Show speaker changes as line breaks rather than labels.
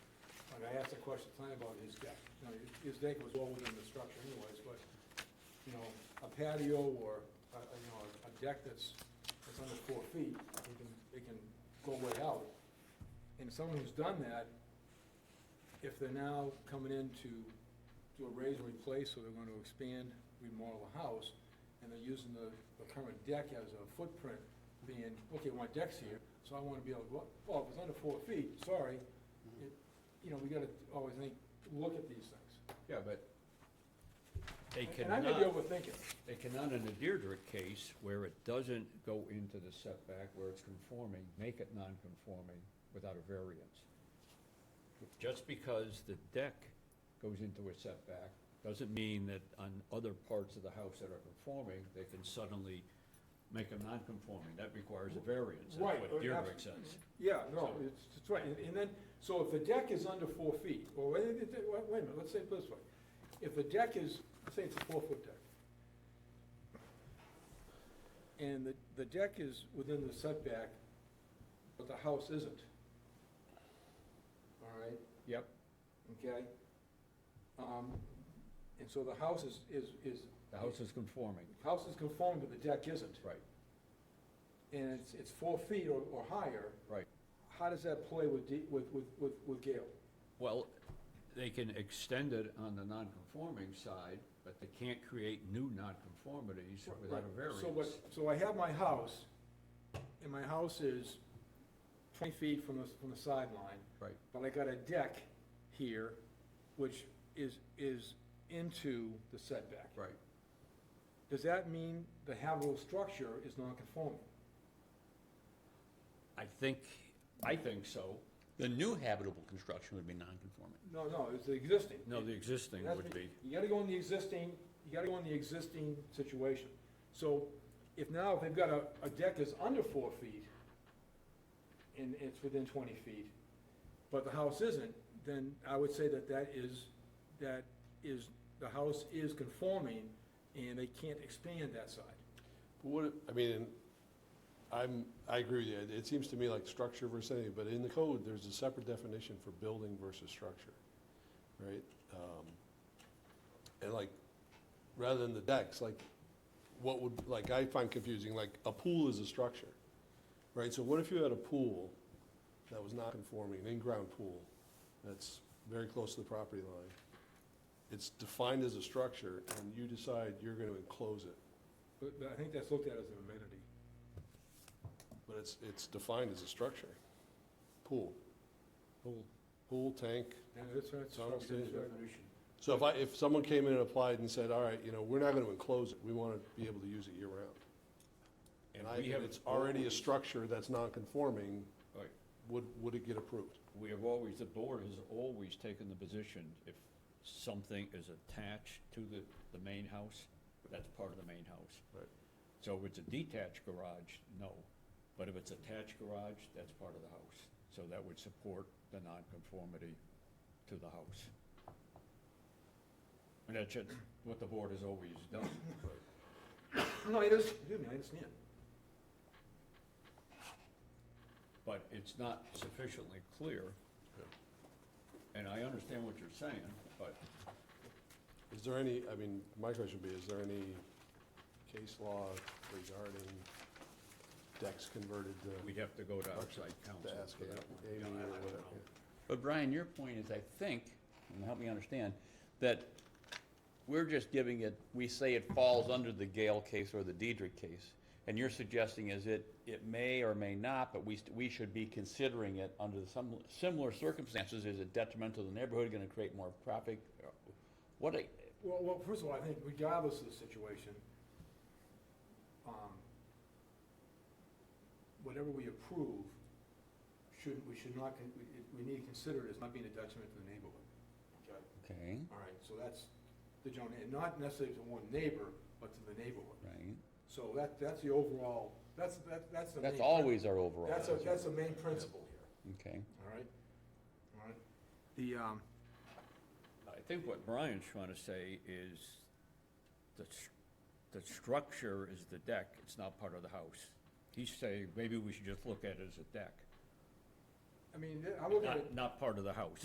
I asked a question tonight about his deck. You know, his deck was well within the structure anyways, but, you know, a patio or, a- a, you know, a deck that's, that's under four feet, it can, it can go way out. And someone who's done that, if they're now coming in to do a raise and replace, or they're gonna expand, remodel the house, and they're using the, the current deck as a footprint, being, okay, my deck's here, so I wanna be able to go, up." well, if it's under four feet, sorry. It- You know, we gotta always think, look at these things.
Yeah, but they
And-
cannot,
And I may be overthinking.
they cannot in the Deirdre case, where it doesn't go into the setback, where it's conforming, make it non-conforming without a variance. Just because the deck goes into a setback, doesn't mean that on other parts of the house that are conforming, they can suddenly make them non-conforming. That requires a variance, that's
Right,
what
or
Deirdre
abs-
says.
Yeah, no, it's, it's right, and, and then, so if the deck is under four feet, or wait, wait, wait wait a minute, let's say it this way. If the deck is, let's say it's a four-foot deck. And the, the deck is within the setback, but the house isn't. All right,
Yep,
okay? Um, and so the house is, is, is,
the house is conforming,
house is conforming, but the deck isn't.
right,
And it's, it's four feet or, or higher,
right.
how does that play with, D- with, with, with, with Gale?
Well, they can extend it on the non-conforming side, but they can't create new non-conformities without a
So what,
variance.
so I have my house, and my house is twenty feet from the, from the sideline,
Right,
but I got a deck here, which is, is into the setback.
right.
Does that mean the habitable structure is non-conforming?
I think, I think so.
The new habitable construction would be non-conforming.
No, no, it's the existing.
No, the existing
That's
would
what-
be,
You gotta go in the existing, you gotta go in the existing situation. So if now they've got a, a deck that's under four feet and it's within twenty feet, but the house isn't, then I would say that that is, that is, the house is conforming and they can't expand that side.
What, I mean, I'm, I agree with you. It- It seems to me like structure versus anything, but in the code, there's a separate definition for building versus structure, right? Um, And like, rather than the decks, like, what would, like, I find confusing, like, a pool is a structure, right? So what if you had a pool that was not conforming, an in-ground pool, that's very close to the property line? It's defined as a structure, and you decide you're gonna enclose it.
But, but I think that's looked at as an amenity.
But it's, it's defined as a structure. Pool. Pool. Pool, tank.
And it's, it's.
So I don't see it.
definition.
So if I, if someone came in and applied and said, all right, you know, we're not gonna enclose it, we wanna be able to use it year round.
and
And I,
we
and
have.
it's already a structure that's non-conforming,
Right.
would, would it get approved?
We have always, the board has always taken the position, if something is attached to the, the main house, that's part of the main house.
Right.
So if it's a detached garage, no, but if it's attached garage, that's part of the house. So that would support the nonconformity to the house. And that's just what the board has always done.
No, it is, excuse me, I understand.
but it's not sufficiently clear.
Yeah.
And I understand what you're saying, but
Is there any, I mean, my question would be, is there any case law regarding decks converted to?
we'd have to go to
structure
outside counsel
To ask
for that one.
Amy
Yeah, I- I
or
don't
whatever.
know.
But Brian, your point is, I think, and help me understand, that we're just giving it, we say it falls under the Gale case or the Diedrich case. And you're suggesting is it, it may or may not, but we, st- we should be considering it under some similar circumstances. Is it detrimental to the neighborhood, gonna create more traffic? What, a-
Well, well, first of all, I think regardless of the situation, um, whatever we approve, shouldn't, we should not, con- we, we need to consider it as not being a detriment to the neighborhood. Okay.
okay,
All right, so that's the general, and not necessarily to one neighbor, but to the neighborhood.
right?
So that, that's the overall, that's, that, that's the main.
That's
prin-
always our overall.
That's, a- that's the main principle here,
Okay.
all right? All right? The, um,
I think what Brian's trying to say is the, s- the structure is the deck, it's not part of the house. He's saying, maybe we should just look at it as a deck,
I mean, I look at it.
not, not part of the house.